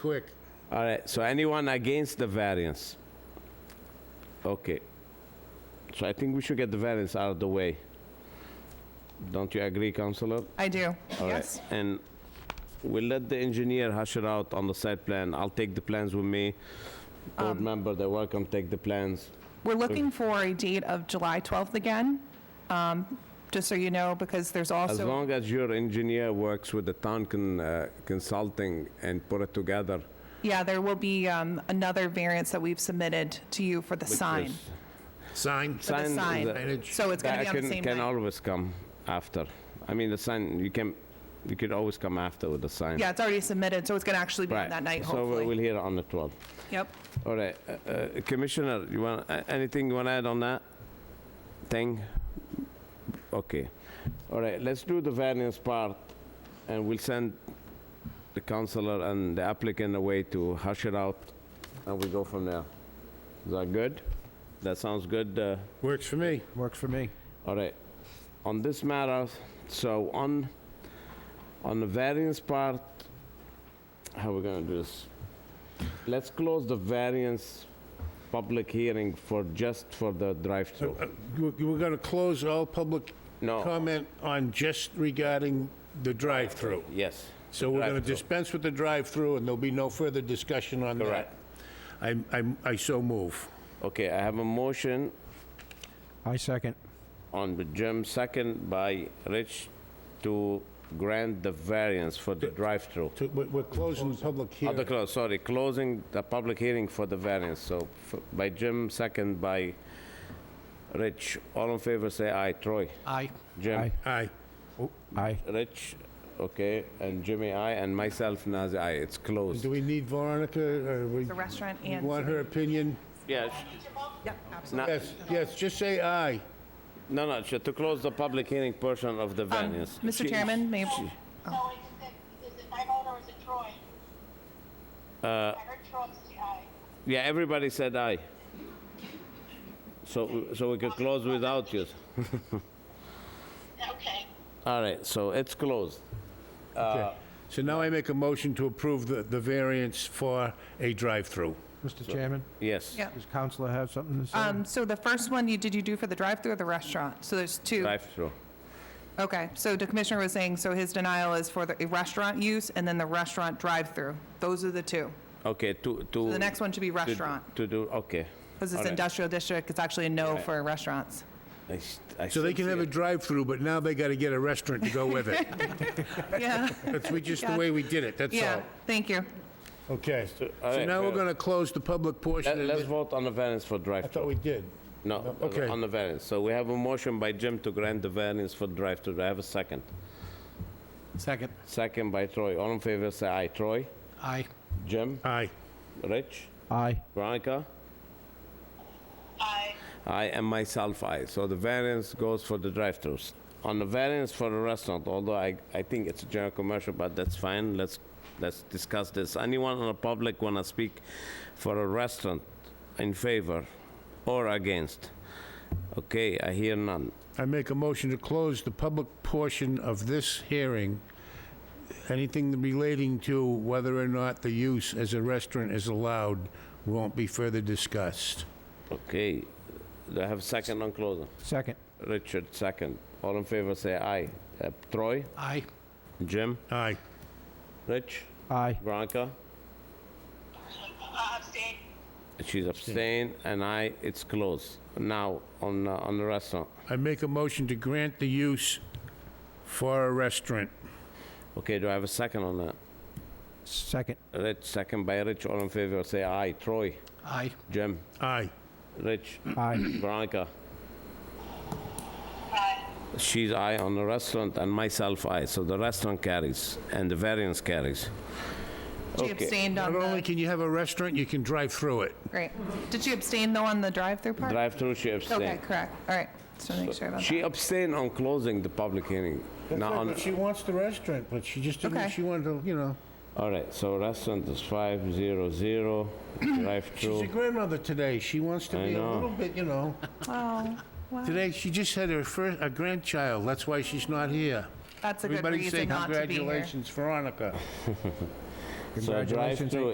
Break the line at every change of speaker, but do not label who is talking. Quick.
All right, so anyone against the variance? Okay. So I think we should get the variance out of the way. Don't you agree, Counselor?
I do,
All right,
yes.
And we'll let the engineer hash it out on the site plan. I'll take the plans with me. Board
Um,
member, they're welcome, take the plans.
We're looking for a date of July 12th again, um, just so you know, because there's
As
also,
long as your engineer works with the town con- uh, consulting and put it together.
yeah, there will be um, another variance that we've submitted to you for the
which
sign.
is-
Sign.
For the
Sign is
sign.
a-
Signage.
So it's going to
That
be on
can,
the same
can
night.
always come after. I mean, the sign, you can, you could always come after with the sign.
Yeah, it's already submitted, so it's going to actually be on
Right.
that night,
So we'll
hopefully.
hear it on the 12th.
Yep.
All right, uh, uh, Commissioner, you want, a- anything you want to add on that thing? Okay. All right, let's do the variance part, and we'll send the counselor and the applicant away to hash it out, and we go from there. Is that good? That sounds good, uh,
Works for me.
Works for me.
all right, on this matter, so on, on the variance part, how we gonna do this? Let's close the variance public hearing for, just for the drive-through.
Uh, We're going to close all public
No.
comment on just regarding the drive-through.
Yes.
So we're going to
Drive-through.
dispense with the drive-through, and there'll be no further discussion on that.
Correct.
I'm- I'm- I so move.
Okay, I have a motion
I second.
on the Jim, second by Rich, to grant the variance for the drive-through.
To- We're we're closing the public
At the
hearing.
close, sorry, closing the public hearing for the variance, so f- by Jim, second by Rich. All in favor, say aye. Troy?
Aye.
Jim?
Aye.
Aye.
Aye.
Rich? Okay, and Jimmy, aye, and myself, Nazir, aye. It's closed.
Do we need Veronica? or we-
The restaurant
we
and-
Want her opinion?
Yes.
Yep, absolutely.
Yes, yes, just say aye.
No, no, sh- to close the public hearing portion of the variance.
Mr.
She-
Um, Chairman, may,
So is it, is it my vote or is it Troy? Uh. I heard Troy say aye.
Yeah, everybody said aye. So, so we could close without you.
Okay.
All right, so it's closed. Uh,
Okay. So now I make a motion to approve the the variance for a drive-through.
Mr. Chairman,
Yes.
Yeah.
does Counselor have something to say?
um, so the first one, you, did you do for the drive-through or the restaurant? So there's two.
Drive-through.
Okay, so the commissioner was saying, so his denial is for the restaurant use and then the restaurant drive-through. Those are the two.
Okay, to, to.
The next one should be
to-
restaurant,
To do, okay.
because
All
it's
right.
industrial district, it's actually a no
Right.
for restaurants.
I s- I
So they
still
can
see
have a
it.
drive-through, but now they got to get a restaurant to go with it.
Yeah,
That's we, just the way we did it, that's
yeah,
all.
thank you.
Okay.
all
So
right,
now we're
fair.
going to close the public
Let-
portion. of
Let's
it.
vote on the variance for
I thought
drive-through.
we did.
No,
Okay.
on the variance. So we have a motion by Jim to grant the variance for drive-through. Do I have a second?
Second.
Second by Troy. All in favor, say aye. Troy?
Aye.
Jim?
Aye.
Rich?
Aye.
Veronica?
Aye.
I and myself, I. So the variance goes for the drive-throughs. On the variance for the restaurant, although I, I think it's a general commercial, but that's fine, let's, let's discuss this. Anyone in the public wanna speak for a restaurant in favor or against? Okay, I hear none.
I make a motion to close the public portion of this hearing. Anything relating to whether or not the use as a restaurant is allowed won't be further discussed.
Okay, do I have a second on closing?
Second.
Richard, second. All in favor, say aye. Uh, Troy?
Aye.
Jim?
Aye.
Rich?
Aye.
Veronica?
Uh, abstain.
She's abstained, and I, it's closed. Now, on, uh, on the restaurant.
I make a motion to grant the use for a restaurant.
Okay, do I have a second on that?
Second.
Rich, second by Rich, all in favor, say aye. Troy,
Aye.
Jim,
Aye.
Rich,
Aye.
Veronica.
Aye.
She's aye on the restaurant and myself aye, so the restaurant carries and the variance carries.
She
Okay.
abstained on
Not only
the,
can you have a restaurant, you can drive through it.
great. Did she abstain though on the drive-through part?
Drive-through, she
Okay,
abstained.
correct, all right, just want to make sure about
She
that.
abstained on closing the public hearing. Not on,
she wants the restaurant, but she just
didn't- Okay. she
wanted to, you know.
all right, so restaurant is 500,
She's a
drive-through.
grandmother today. She wants to
I
be a
know.
little bit, you know.
Oh, wow,
Today, she just had her first, a grandchild. That's why she's not here.
that's a good
Everybody say
reason not to be here.
congratulations, Veronica.
So
Congratulations,
drive-through